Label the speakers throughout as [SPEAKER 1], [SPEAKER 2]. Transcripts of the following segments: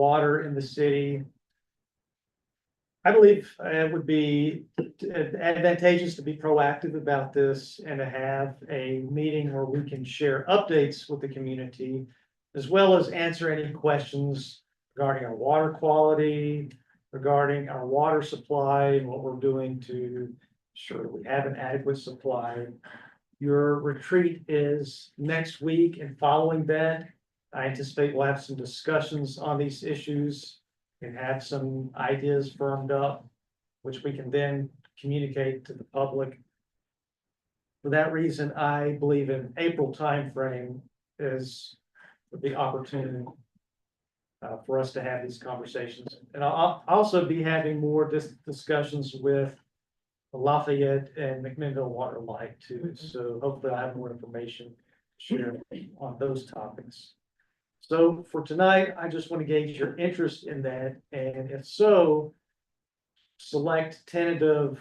[SPEAKER 1] water in the city. I believe uh, it would be advantageous to be proactive about this and to have a meeting where we can share updates with the community. As well as answer any questions regarding our water quality, regarding our water supply and what we're doing to ensure that we have an adequate supply. Your retreat is next week and following that, I anticipate we'll have some discussions on these issues and have some ideas firmed up, which we can then communicate to the public. For that reason, I believe an April timeframe is the opportunity uh, for us to have these conversations. And I'll, I'll also be having more dis- discussions with Lafayette and McMinnville Waterlight too. So hopefully I have more information to share on those topics. So for tonight, I just want to gauge your interest in that, and if so, select tentative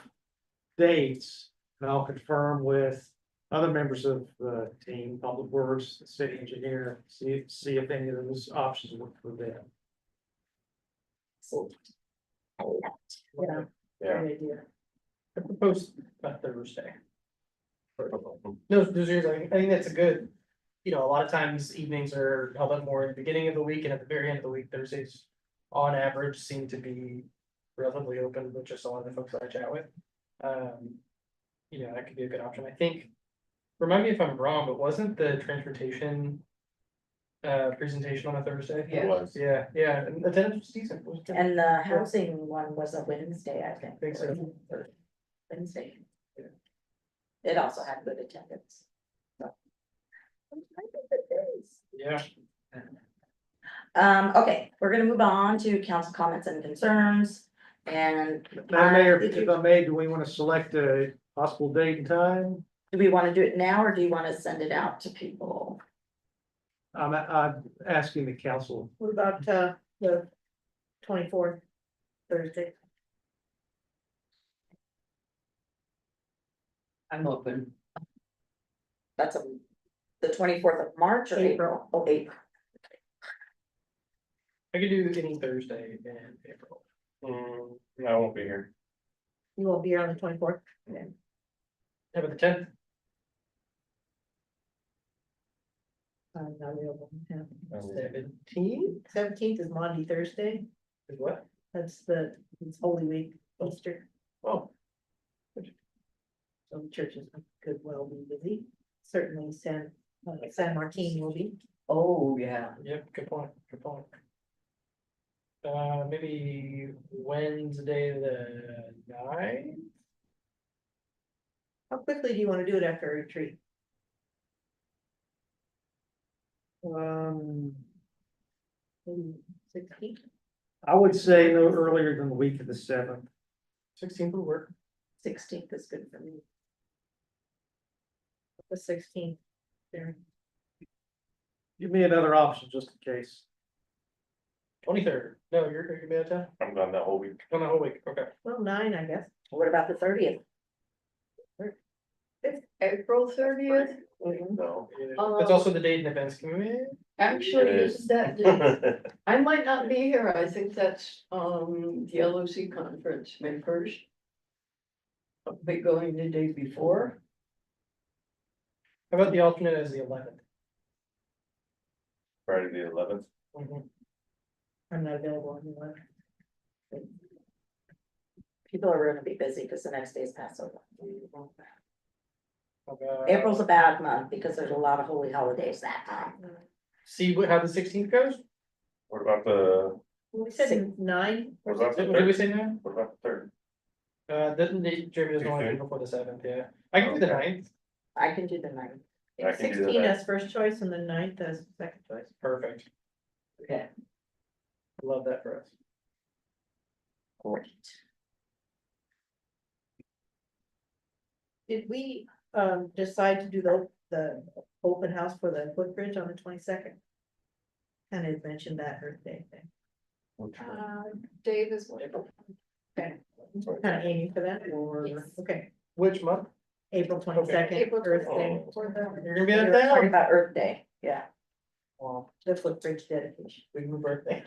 [SPEAKER 1] dates, and I'll confirm with other members of the team, Public Works, the city engineer, see, see if any of those options work for them.
[SPEAKER 2] Yeah,
[SPEAKER 3] Yeah.
[SPEAKER 2] great idea.
[SPEAKER 4] I proposed about Thursday. No, those are, I think that's a good, you know, a lot of times evenings are held up more at the beginning of the week and at the very end of the week, Thursdays. On average seem to be relatively open, with just a lot of the folks that I chat with. Um, you know, that could be a good option, I think. Remind me if I'm wrong, but wasn't the transportation? Uh, presentation on a Thursday?
[SPEAKER 3] It was,
[SPEAKER 4] Yeah, yeah, and the attendance was decent. it was good.
[SPEAKER 2] And the housing one was a Wednesday, I think.
[SPEAKER 4] Think so.
[SPEAKER 2] Wednesday.
[SPEAKER 4] Yeah.
[SPEAKER 2] It also had good attendance. So. I'm trying to think of days.
[SPEAKER 4] Yeah,
[SPEAKER 2] Um, okay, we're gonna move on to council comments and concerns and
[SPEAKER 1] Madam Mayor, if I may, do we want to select a possible date and time?
[SPEAKER 2] do we wanna do it now or do you wanna send it out to people?
[SPEAKER 1] I'm, I'm asking the council.
[SPEAKER 5] What about uh the twenty-fourth, Thursday?
[SPEAKER 6] I'm open.
[SPEAKER 2] That's a, the twenty-fourth of March or April?
[SPEAKER 5] April.
[SPEAKER 2] Oh, April.
[SPEAKER 4] I could do any Thursday in April.
[SPEAKER 3] Mm, I won't be here.
[SPEAKER 5] You won't be here on the twenty-fourth?
[SPEAKER 4] How about the tenth?
[SPEAKER 5] I'm not available.
[SPEAKER 4] Seventeenth
[SPEAKER 5] Seventeenth is Monday, Thursday,
[SPEAKER 4] is what?
[SPEAKER 5] that's the, it's Holy Week, Easter,
[SPEAKER 4] Oh,
[SPEAKER 5] so the churches could well be busy. Certainly San, uh, San Martin will be.
[SPEAKER 6] Oh, yeah.
[SPEAKER 4] yep, good point, good point. Uh, maybe Wednesday the ninth?
[SPEAKER 5] How quickly do you wanna do it after a retreat?
[SPEAKER 1] Um,
[SPEAKER 5] Maybe sixteenth,
[SPEAKER 1] I would say no earlier than the week of the seventh.
[SPEAKER 4] Sixteenth would work.
[SPEAKER 2] Sixteenth is good for me.
[SPEAKER 5] the sixteenth, there,
[SPEAKER 1] Give me another option just in case.
[SPEAKER 4] Twenty-third, no, you're, you're gonna be out of town,
[SPEAKER 3] I'm gone that whole week.
[SPEAKER 4] on the whole week, okay.
[SPEAKER 5] well, nine, I guess.
[SPEAKER 2] What about the thirtieth?
[SPEAKER 6] It's April thirtieth, Um,
[SPEAKER 3] No.
[SPEAKER 4] Yeah, That's also the date and events committee,
[SPEAKER 6] actually,
[SPEAKER 3] It is.
[SPEAKER 6] is that, I might not be here, I think that's, um, the L O C conference, May first. I'll be going the day before,
[SPEAKER 4] how about the alternate as the eleventh?
[SPEAKER 3] Friday the eleventh.
[SPEAKER 5] I'm not available anymore.
[SPEAKER 2] People are gonna be busy because the next day is Passover.
[SPEAKER 4] April.
[SPEAKER 2] April's a bad month because there's a lot of holy holidays that time.
[SPEAKER 4] See what, how the sixteenth goes,
[SPEAKER 3] What about the,
[SPEAKER 5] We said nine,
[SPEAKER 3] what about the
[SPEAKER 4] did did we
[SPEAKER 3] third?
[SPEAKER 4] say that?
[SPEAKER 3] What about the third?
[SPEAKER 4] Uh, doesn't, Jeremy doesn't want to do
[SPEAKER 3] Tuesday?
[SPEAKER 4] before the seventh, yeah, I can do the
[SPEAKER 3] Okay.
[SPEAKER 4] ninth,
[SPEAKER 2] I can do the ninth.
[SPEAKER 3] I can do
[SPEAKER 5] sixteen
[SPEAKER 3] that.
[SPEAKER 5] as first choice and the ninth as second choice.
[SPEAKER 4] perfect.
[SPEAKER 6] Okay.
[SPEAKER 4] Love that for us.
[SPEAKER 2] Great.
[SPEAKER 5] Did we um decide to do the the open house for the footbridge on the twenty second? And it mentioned that Earth Day thing,
[SPEAKER 3] Which one?
[SPEAKER 6] uh, Dave is whatever.
[SPEAKER 5] kind of aiming for that, or,
[SPEAKER 2] Yes.
[SPEAKER 5] okay,
[SPEAKER 4] Which month?
[SPEAKER 5] April twenty second,
[SPEAKER 6] April
[SPEAKER 5] Earth Day,
[SPEAKER 3] Oh.
[SPEAKER 4] You're gonna be
[SPEAKER 2] We were
[SPEAKER 4] out of
[SPEAKER 2] talking
[SPEAKER 4] town.
[SPEAKER 2] about Earth Day, yeah.
[SPEAKER 4] Well,
[SPEAKER 5] the footbridge dedication.
[SPEAKER 4] big birthday.